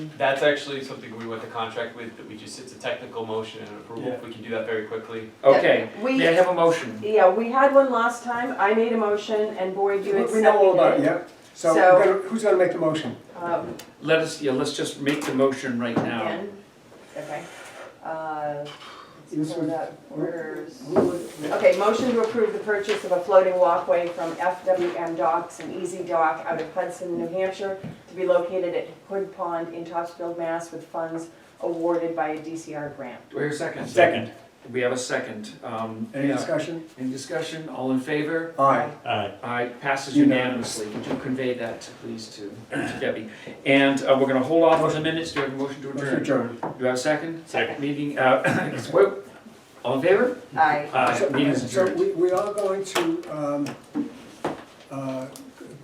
That's actually something we went to contract with, that we just, it's a technical motion and approval, we can do that very quickly. Okay, We- may I have a motion? Yeah, we had one last time, I made a motion, and Boyd, you We- We know all about it, accepted it. yeah. So So- we're gonna- who's gonna make the motion? Um, Let us, yeah, let's just make the motion right now. Again, okay. Uh, This let's pull was- that orders. Who would- Okay, motion to approve the purchase of a floating walkway from FWM Docks and Easy Dock out of Hudson, New Hampshire, to be located at Hood Pond in Topsfield, Mass, with funds awarded by a DCR grant. Do I hear a second? Second. We have a second. Um, Any yeah. discussion? Any discussion? All in favor? Aye. Aye. Aye, passes Unanimous. unanimously. Would you convey that, please, to to Debbie? And uh, we're gonna hold off on the minutes. Do you have a motion to Motion adjourn? adjourned. Do I have a second? Second. Meeting, uh, whoa. all in favor? Aye. Aye, meeting is So adjourned. we, we are going to, um, uh,